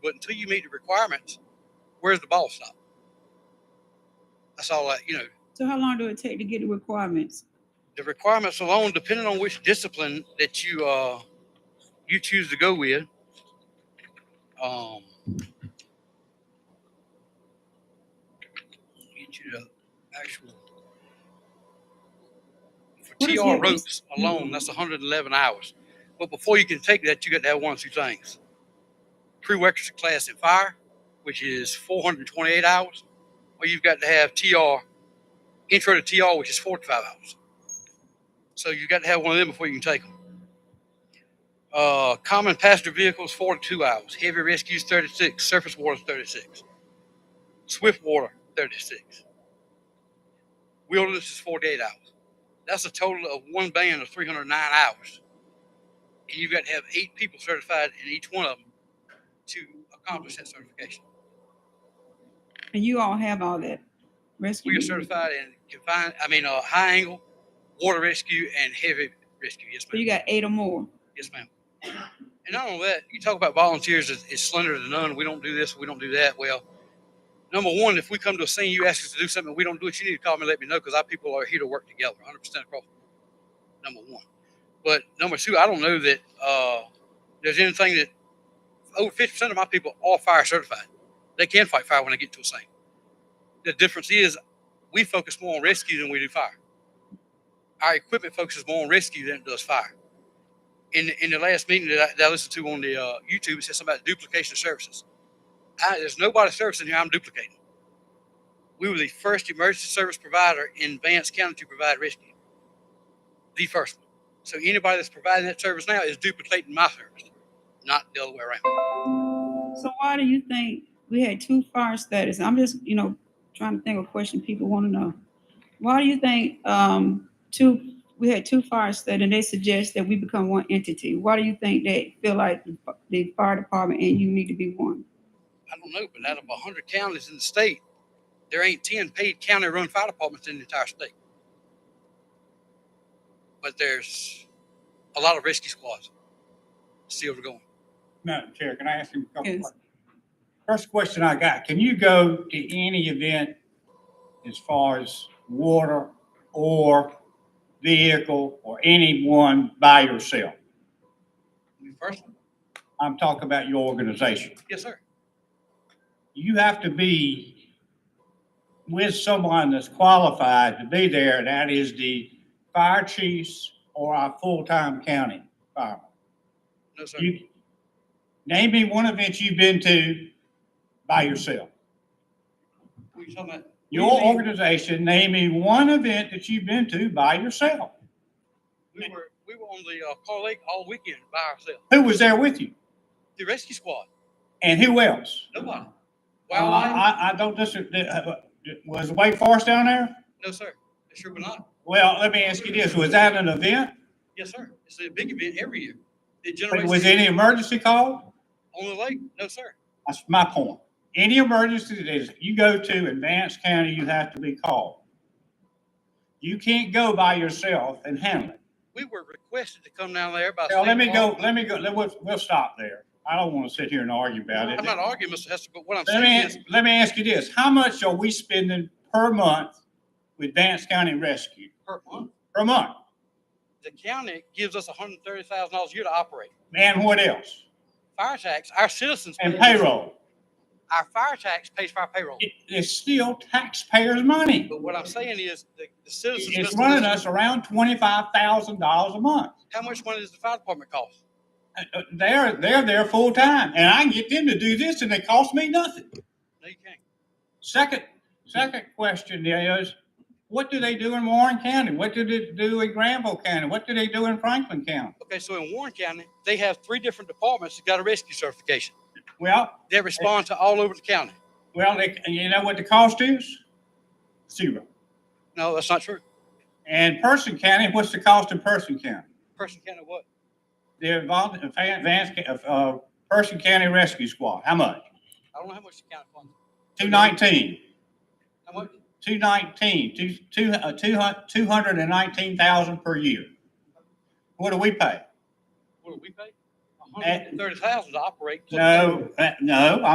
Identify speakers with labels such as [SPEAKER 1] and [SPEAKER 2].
[SPEAKER 1] But until you meet the requirements, where's the ball stop? That's all that, you know,
[SPEAKER 2] So how long do it take to get the requirements?
[SPEAKER 1] the requirements alone, depending on which discipline that you uh you choose to go with, um, get you the actual for
[SPEAKER 2] What is
[SPEAKER 1] TR
[SPEAKER 2] that?
[SPEAKER 1] ropes alone, that's 111 hours. But before you can take that, you got to have one or two things: prerequisite class in fire, which is 428 hours, or you've got to have TR intro to TR, which is 45 hours. So you got to have one of them before you can take them. Uh, common passenger vehicles, 42 hours. Heavy rescues, 36. Surface water, 36. Swift water, 36. Wilderness is 48 hours. That's a total of one band of 309 hours. And you've got to have eight people certified in each one of them to accomplish that certification.
[SPEAKER 2] And you all have all that rescue?
[SPEAKER 1] We are certified in confined, I mean, uh, high angle, water rescue, and heavy rescue. Yes,
[SPEAKER 2] So
[SPEAKER 1] ma'am.
[SPEAKER 2] you got eight or more?
[SPEAKER 1] Yes, ma'am. And not only that, you talk about volunteers is, is slender to none. We don't do this, we don't do that. Well, number one, if we come to a scene, you ask us to do something, we don't do it, you need to call me and let me know because our people are here to work together, 100% across. Number one. But number two, I don't know that uh, there's anything that over 50% of my people are fire certified. They can fight fire when they get to a scene. The difference is we focus more on rescue than we do fire. Our equipment focuses more on rescue than it does fire in in the last meeting that I, that I listened to on the uh, YouTube, it said something about duplication of services. I, there's nobody servicing here. I'm duplicating. We were the first emergency service provider in Vance County to provide rescue, the first one. So anybody that's providing that service now is duplicating my service, not the other way around.
[SPEAKER 2] So why do you think we had two fire status? I'm just, you know, trying to think of a question people want to know. Why do you think, um, two, we had two fire status and they suggest that we become one entity? Why do you think they feel like the fi- the fire department and you need to be one?
[SPEAKER 1] I don't know, but out of 100 counties in the state, there ain't 10 paid county-run fire departments in the entire state. But there's a lot of rescue squads still going.
[SPEAKER 3] Madam Chair, can I ask you a couple
[SPEAKER 2] Yes.
[SPEAKER 3] questions? First question I got, can you go to any event as far as water or vehicle or anyone by yourself?
[SPEAKER 1] First,
[SPEAKER 3] I'm talking about your organization.
[SPEAKER 1] yes, sir.
[SPEAKER 3] You have to be with someone that's qualified to be there, and that is the fire chiefs or our full-time county firemen.
[SPEAKER 1] No, sir.
[SPEAKER 3] You, name me one event you've been to by yourself.
[SPEAKER 1] What you talking about?
[SPEAKER 3] Your organization, name me one event that you've been to by yourself.
[SPEAKER 1] We were, we were on the uh, Car Lake all weekend by ourselves.
[SPEAKER 3] Who was there with you?
[SPEAKER 1] The rescue squad,
[SPEAKER 3] And who else?
[SPEAKER 1] nobody.
[SPEAKER 3] Uh,
[SPEAKER 1] Wildlife,
[SPEAKER 3] I, I don't disagree. Was Wake Forest down there?
[SPEAKER 1] no, sir. It sure were not.
[SPEAKER 3] Well, let me ask you this. Was that an event?
[SPEAKER 1] Yes, sir. It's a big event every year. It generates.
[SPEAKER 3] Was any emergency call?
[SPEAKER 1] On the lake? No, sir.
[SPEAKER 3] That's my point. Any emergency that is, you go to in Vance County, you have to be called. You can't go by yourself and handle it.
[SPEAKER 1] We were requested to come down there by.
[SPEAKER 3] Now,
[SPEAKER 1] state
[SPEAKER 3] let me
[SPEAKER 1] law.
[SPEAKER 3] go, let me go, let, we'll, we'll stop there. I don't want to sit here and argue about it.
[SPEAKER 1] I'm not arguing, Mr. Hester, but what I'm
[SPEAKER 3] Let me,
[SPEAKER 1] saying is,
[SPEAKER 3] ask- let me ask you this, how much are we spending per month with Vance County Rescue?
[SPEAKER 1] per month,
[SPEAKER 3] Per month?
[SPEAKER 1] the county gives us hundred and thirty thousand dollars a year to operate.
[SPEAKER 3] And what else?
[SPEAKER 1] Fire tax, our citizens.
[SPEAKER 3] And
[SPEAKER 1] pay this.
[SPEAKER 3] payroll?
[SPEAKER 1] Our fire tax pays for our payroll.
[SPEAKER 3] It, it's still taxpayers' money.
[SPEAKER 1] But what I'm saying is, the, the citizens.
[SPEAKER 3] It's
[SPEAKER 1] Mr.
[SPEAKER 3] running
[SPEAKER 1] Hester,
[SPEAKER 3] us around twenty-five thousand dollars a month.
[SPEAKER 1] How much money does the fire department cost?
[SPEAKER 3] Uh, uh, They're, they're there full-time, and I can get them to do this, and it costs me nothing.
[SPEAKER 1] No, you can't.
[SPEAKER 3] Second, second question is, what do they do in Warren County? What do they do in Granville County? What do they do in Franklin County?
[SPEAKER 1] Okay, so in Warren County, they have three different departments that got a rescue certification.
[SPEAKER 3] Well,
[SPEAKER 1] They respond to all over the county.
[SPEAKER 3] well, they, and you know what the cost is? Zero.
[SPEAKER 1] No, that's not true.
[SPEAKER 3] And Person County, what's the cost in Person County?
[SPEAKER 1] Person County what?
[SPEAKER 3] They're involved in Fan- Vance, Ca- uh, Person County Rescue Squad, how much?
[SPEAKER 1] I don't know how much the county funds.
[SPEAKER 3] Two nineteen,
[SPEAKER 1] How much?
[SPEAKER 3] two nineteen, two, two, uh, two hun- two hundred and nineteen thousand per year. What do we pay?
[SPEAKER 1] What do we pay? A hundred and thirty thousand to operate.
[SPEAKER 3] No, uh, no,